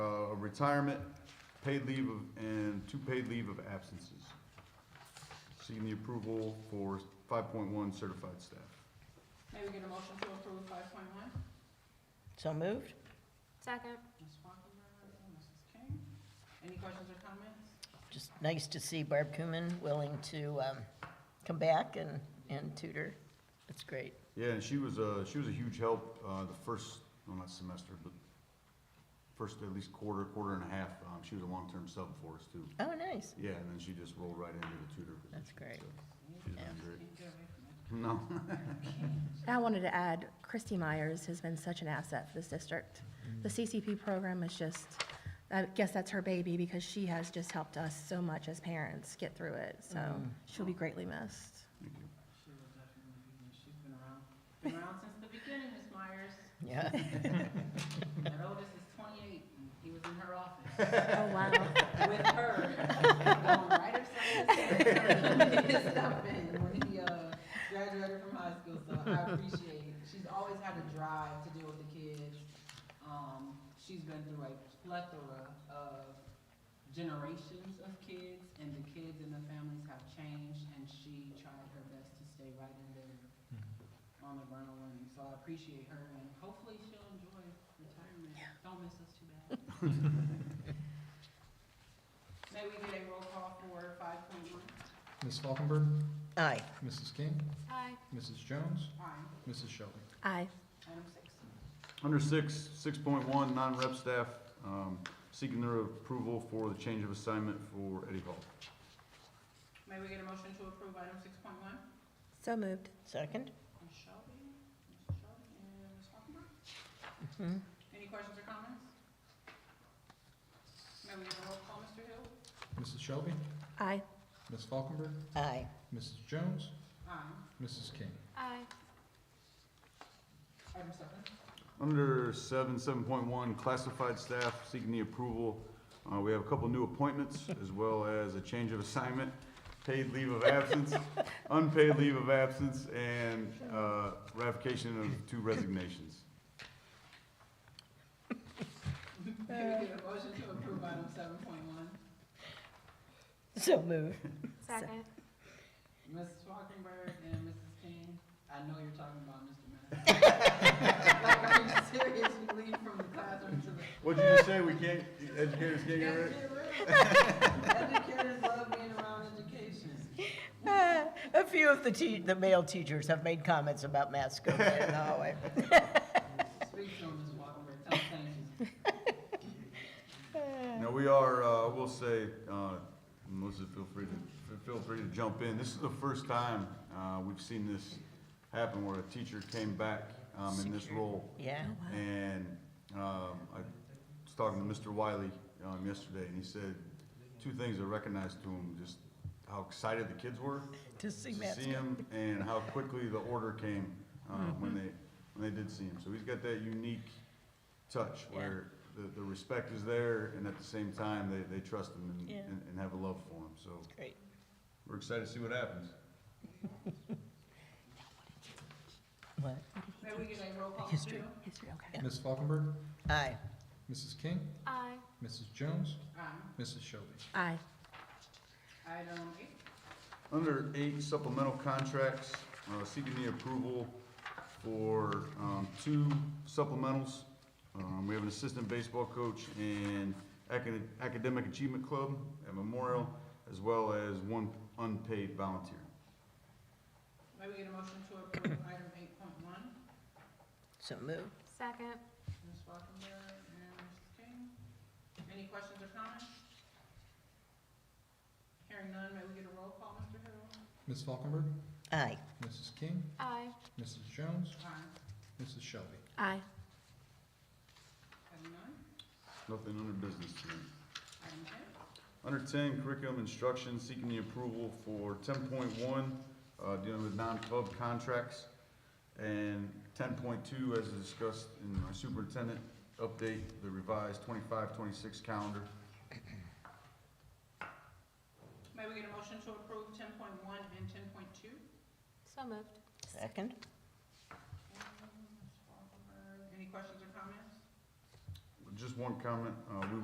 uh, retirement, paid leave of, and two paid leave of absences. Seeking the approval for five point one certified staff. May we get a motion to approve five point one? So moved? Second. Ms. Falkenberg and Mrs. King. Any questions or comments? Just nice to see Barb Cooman willing to um, come back and, and tutor. That's great. Yeah, and she was, uh, she was a huge help, uh, the first, well, not semester, but first at least quarter, quarter and a half, um, she was a long-term sub for us too. Oh, nice. Yeah, and then she just rolled right into the tutor position. That's great. so She's done great. Can't get away from it. No, I wanted to add, Christy Myers has been such an asset for this district. The CCP program is just, I guess that's her baby because she has just helped us so much as parents get through it. So she'll be greatly missed. thank you. She will definitely be here. She's been around, been around since the beginning, Ms. Myers. Yeah. That oldest is twenty-eight, and he was in her office Oh, wow. with her. Going right up side to side. His stuff in when he, uh, graduated from high school, so I appreciate it. She's always had a drive to deal with the kids. Um, she's been through a plethora of generations of kids, and the kids and the families have changed, and she tried her best to stay right in there Mm-hmm. on the ground running. So I appreciate her, and hopefully she'll enjoy retirement. Don't miss us too bad. May we get a roll call for five point one? Ms. Falkenberg, Aye. Mrs. King, Aye. Mrs. Jones, Aye. Mrs. Shelby. Aye. Item six. Under six, six point one, non-rep staff, um, seeking their approval for the change of assignment for Eddie Hall. May we get a motion to approve item six point one? So moved. Second? Ms. Shelby, Mrs. Shelby, and Ms. Falkenberg. Mhm. Any questions or comments? May we get a roll call, Mr. Hill? Mrs. Shelby, Aye. Ms. Falkenberg, Aye. Mrs. Jones, Aye. Mrs. King. Aye. Item seven. Under seven, seven point one, classified staff seeking the approval. Uh, we have a couple new appointments as well as a change of assignment, paid leave of absence, unpaid leave of absence, and, uh, ratification of two resignations. May we get a motion to approve item seven point one? So moved. Second. Mrs. Falkenberg and Mrs. King, I know you're talking about Mr. Madison. Like, are you serious? You leave from the classroom to the. What'd you just say? We can't, educators can't get rid of it? Educators love being around education. Ah, A few of the te, the male teachers have made comments about masks over there in the hallway. Speak to them, Ms. Walkenberg, tell them thank you. Now, we are, uh, I will say, uh, Melissa, feel free to, feel free to jump in. This is the first time, uh, we've seen this happen where a teacher came back, um, in this role. Yeah. Oh, And, um, I was talking to Mr. Wiley, um, yesterday, and he said two things I recognized to him, just how excited the kids were To see to masks. see him and how quickly the order came, um, Mm-hmm. when they, when they did see him. So he's got that unique touch Yeah. where the, the respect is there and at the same time, they, they trust him and, Yeah. and- and have a love for him. So Great. we're excited to see what happens. What? May we get a roll call, Mr. History. Hill? History, okay. Yeah. Ms. Falkenberg, Aye. Mrs. King, Aye. Mrs. Jones, Aye. Mrs. Shelby. Aye. Item eight. Under eight supplemental contracts, uh, seeking the approval for, um, two supplementals. Um, we have an assistant baseball coach and acad- academic achievement club at Memorial, as well as one unpaid volunteer. May we get a motion to approve item eight point one? So moved. Second. Ms. Falkenberg and Mrs. King. Any questions or comments? Hearing none, may we get a roll call, Mr. Hill? Ms. Falkenberg, Aye. Mrs. King, Aye. Mrs. Jones, Aye. Mrs. Shelby. Aye. Item nine. Nothing under business tonight. Item ten. Under ten, curriculum instruction, seeking the approval for ten point one, uh, dealing with non-club contracts. And ten point two, as discussed in my superintendent update, the revised 25-26 calendar. May we get a motion to approve ten point one and ten point two? So moved. Second? Any questions or comments? Just one comment, uh, we